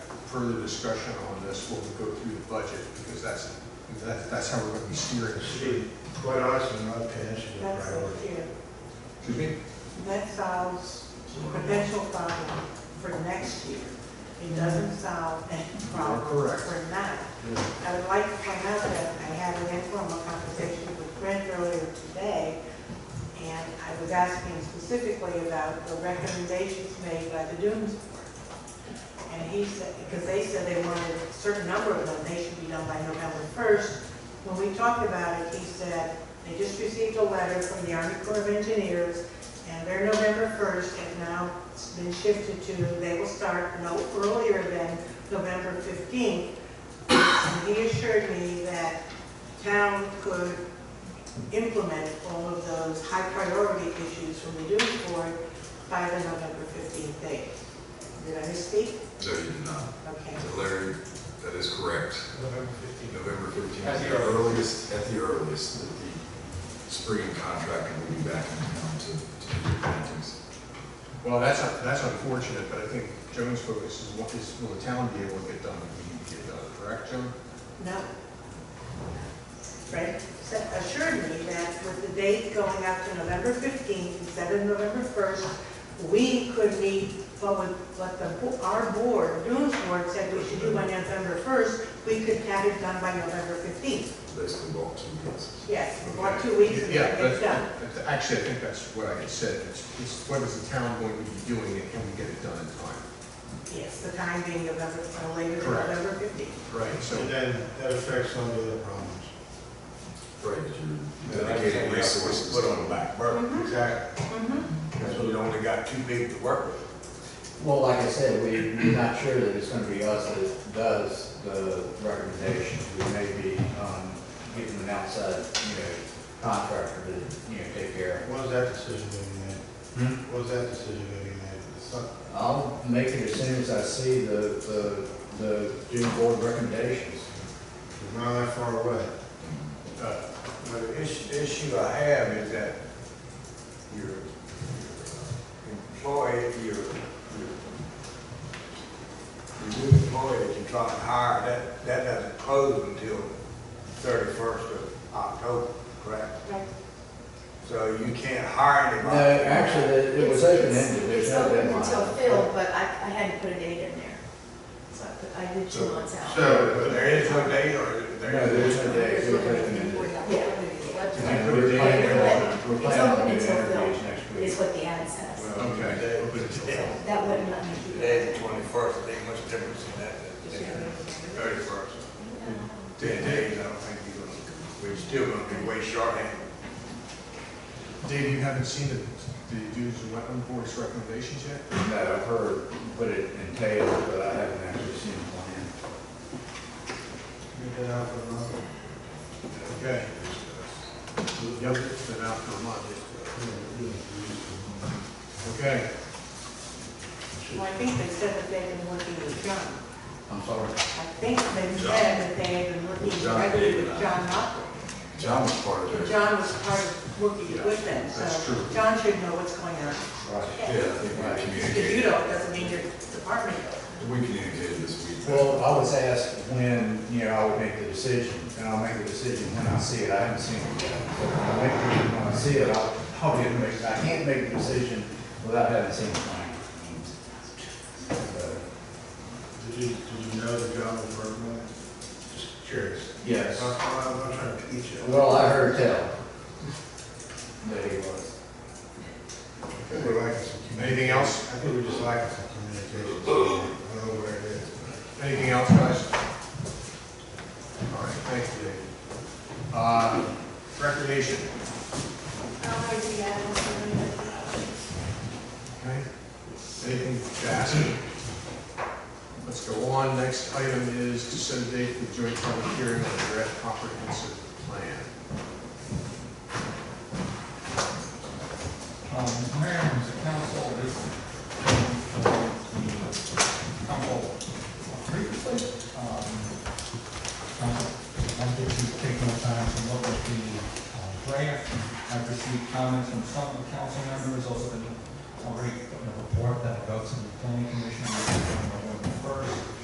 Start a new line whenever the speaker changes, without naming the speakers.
further discussion on this when we go through the budget, because that's, that- that's how we're gonna be steering.
To be quite honest, I'm not passing the
That's
priority.
it, yeah.
Excuse me?
That solves the potential problem for next year. It doesn't solve any
You're
problem
correct.
for now.
Yeah.
I would like to point out that I had an informal conversation with Brent earlier today, and I was asking him specifically about the recommendations made by the Dunes Board. And he said, because they said they wanted a certain number of them, they should be done by November first. When we talked about it, he said, they just received a letter from the Army Corps of Engineers, and they're November first, and now it's been shifted to, they will start no earlier than November fifteenth. And he assured me that town could implement all of those high priority issues from the Dunes Board by the November 15th date. Did I misspeak?
No, you did not.
Okay.
Larry, that is correct.
November 15th.
November 15th.
At the earliest.
At the earliest, that the spring contractor will be back in town to, to do the plantings.
Well, that's, un- that's unfortunate, but I think Joan's focus is what is, will the town be able to get done, what we need to get done, correct, Joan?
No. Fred said- assured me that with the date going out to November 15th instead of November 1st, we could meet what would, what the, bo- our board, Dunes Board said we should do by November 1st, we could have it done by November 15th.
Basically, walk two weeks.
Yes, about two weeks and
Yeah,
get
but,
it done.
but actually, I think that's what I had said, it's, it's what is the town going to be doing, and can we get it done in time?
Yes, the time being November, uh, later than
Correct.
November fifteenth.
Right, so,
And then that affects some of the other problems.
Right, you're dedicating resources.
Put on the back burner.
Mm-hmm.
Exactly.
That's when you only got too big to work with.
Well, like I said, we, we're not sure that it's gonna be us that does the recommendation. We may be, um, getting an outside, you know, contractor to, you know, take care
What was that decision going
of it.
to be made? What was that decision going to be made? It's not-
I'll make it as soon as I see the, the, the June board recommendations.
It's not that far away.
uh,
But the issue, issue I have is that your your employee, your, your, your new employee that you try to hire, that, that doesn't close until thirty-first of October, correct?
Right.
So you can't hire
No,
anybody.
actually, it- it was open ended,
It's
there's
it's
no
open
deadline.
until filled, but I, I hadn't put a date in there. So I put, I did two months out.
So there is no date or
No,
there
there's
is?
no day, it was open ended.
Yeah.
And we're planning on, we're planning on doing
It's open until
interviews next
Is
week.
what the ad says.
Well,
Okay.
today-
So that wouldn't let me keep
Today's
it.
the twenty-first, there ain't much difference in that, thirty-first. Ten days, I don't think you're gonna, we're still gonna be way shorthanded.
Dave, you haven't seen the, the dues and wetland board's recommendations yet?
No, I've heard what it entails, but I haven't actually seen the
You've been out for a month.
Okay. Yep, it's been out for a month. Okay,
Well, I think they said that they've been working with John.
plan. I'm sorry.
I think they said that they had been working
John
regularly
did
with
not.
John Hopper.
John was part of
And
it.
John was part of working
Yeah,
with them,
that's
so
true.
John should know what's going on.
Right.
Yeah, I think
If you
we communicated,
don't, doesn't mean your department does.
we communicated this week.
Well, I was asked when, you know, I would make the decision, and I'll make the decision when I see it, I haven't seen it yet. So I'll make the decision when I see it, I'll, I'll get, make- I can't make the decision without having seen the plan. So,
Did you, did you know the job was working on it? Just curious.
Yes.
I'm not- I'm not trying to teach you.
Well, I heard tell that he was.
We're lacking some communication.
Anything else?
I think we're just lacking some communication. I don't know where it is.
anything else, guys? All right, thank you, Dave. Uh, recreation, okay? Anything to ask? Let's go on, next item is to set a date for the joint public hearing on the draft comprehensive plan.
Um, Mayor and the council, this, um, council previously, um, um, I did just take no time to look at the uh, draft. I've received comments from some of the council members, also been already put in a report that will go to the planning commission on November first.